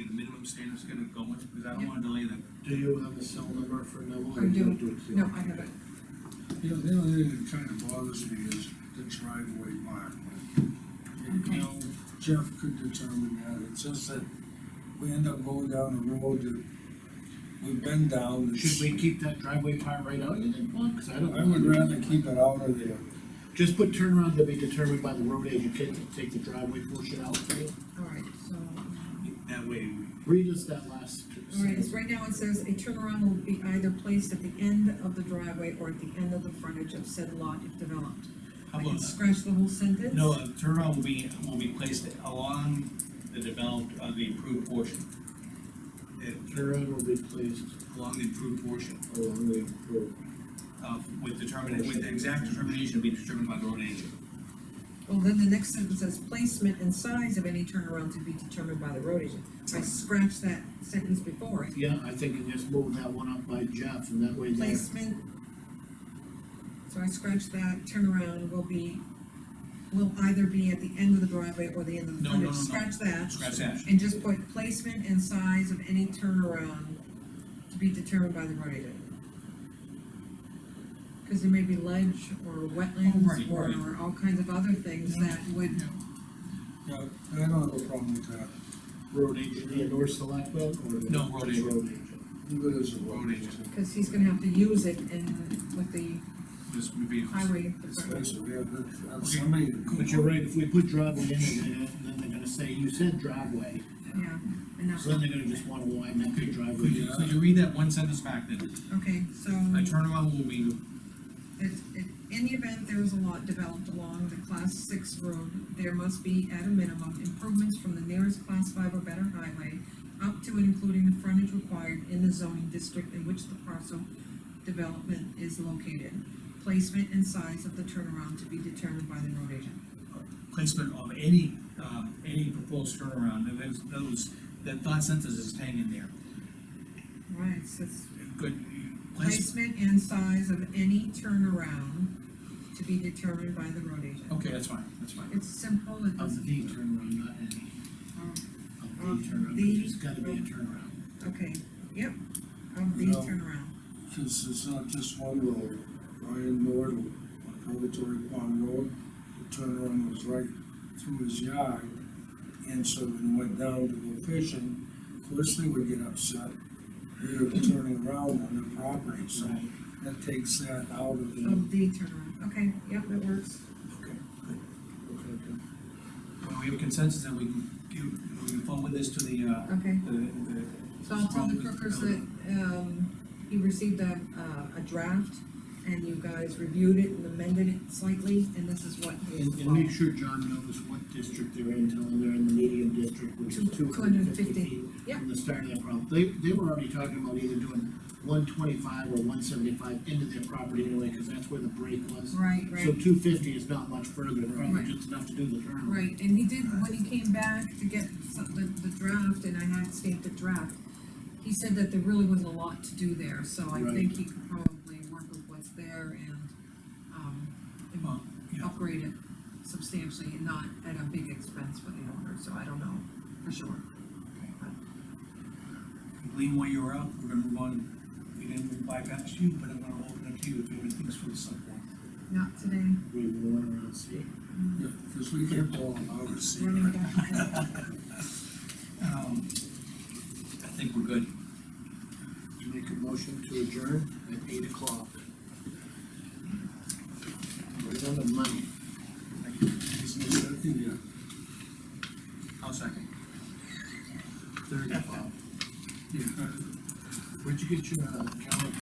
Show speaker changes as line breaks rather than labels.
Jane was gonna go with, because I don't wanna delay them.
Do you have a cell number for Neville?
I do,
it
no, I haven't,
You know, the only thing that kind of bothers me is the driveway mark. And, You know, Jeff could determine that, it's just that we end up going down a road that we've been down. that's-
Should we keep that driveway part right out, you think, Bob? 'Cause I don't.
I would rather keep it out of there.
Just put turnaround to be determined by the road agent, can take the driveway portion out, okay?
all right, so. um,
That way,
Read us that last.
All right, it's right now it says a turnaround will be either placed at the end of the driveway or at the end of the frontage of said lot if developed.
how
I can
about, uh,
scratch the whole sentence?
no, a turnaround will be, will be placed along the developed, uh, the improved portion. Uh,
Turnaround will be placed
Along the improved portion,
along the road.
uh, with determination, with the exact determination be determined by the road agent.
Well, then the next sentence says placement and size of any turnaround to be determined by the road agent. I scratched that sentence before it.
Yeah, I think you just move that one up by Jeff, and that way there,
Placement. So I scratched that, turnaround will be, will either be at the end of the driveway or the end of the
No, no,
frontage.
no, no.
Scratch that.
Scratch that.
And just put placement and size of any turnaround to be determined by the road agent. Cause there may be ledge or wetlands
Oh, right, right.
or all kinds of other things that would,
Yeah, I don't have a problem with that.
road agent and or selectmen, or? the-
No, road agent.
Road agent.
Leave it as a
Road agent.
cause he's gonna have to use it in, with the
This would be.
highway department.
Expensive, yeah, but have
Okay.
somebody.
But you're right, if we put driveway in, and then they're gonna say, you said driveway,
Yeah, and that's,
so then they're gonna just wanna widen that big driveway.
Could you, could you read that one sentence back then?
okay, so.
A turnaround will be
It, it, in the event there is a lot developed along the class six road, there must be at a minimum improvements from the nearest class five or better highway up to and including the frontage required in the zoning district in which the parcel development is located. Placement and size of the turnaround to be determined by the road agent.
placement of any, um, any proposed turnaround, and those, those, that thought sentence is hanging there.
Right, it says
Good, place,
placement and size of any turnaround to be determined by the road agent.
okay, that's fine, that's fine.
It's simple, it
Of
doesn't.
the turnaround, not any,
um,
of
Of
the turnaround,
the-
there's gotta be a turnaround.
Okay, yep, of the
No.
turnaround.
Cause it's not just one road, Ryan Nord, on Purgatory Pond Road, the turnaround was right through his yard. And so when he went down to go fishing, of course they would get upset, they were turning around on their property, so that takes that out of the.
Of the turnaround, okay, yep, that works.
Okay, good. Okay, good.
Well, we have consensus that we can give, we can forward this to the, uh,
Okay,
the, the.
so I'll tell the Crookers that, um, he received a, uh, a draft, and you guys reviewed it and amended it slightly, and this is what.
And, and make sure John knows what district they're in, tell him they're in the medium district, which is two hundred
250,
and fifty feet.
yeah.
From the start of that problem, they, they were already talking about either doing one twenty-five or one seventy-five into their property anyway, cause that's where the break was.
Right,
So
right,
two fifty is not much further, probably
Right.
just enough to do the turnaround.
right, and he did, when he came back to get some, the, the draft, and I had stamped the draft, he said that there really wasn't a lot to do there, so I
Right.
think he could probably work with what's there and, um, and
Well, you know,
upgrade it substantially and not at a big expense for the owner, so I don't know for sure.
Lean, while you were out, we're gonna move on, we didn't bypass you, but I'm gonna open up to you if you have any things for the subboard.
Not today,
We were going around, see.
Yeah, cause we kept all of ours.
running back and forth.
Um, I think we're good.
Make a motion to adjourn at eight o'clock. We're on the money.
Thank you.
Isn't it, I think, yeah.
I'll second.
Thirty, Bob. Where'd you get your, uh, calendar?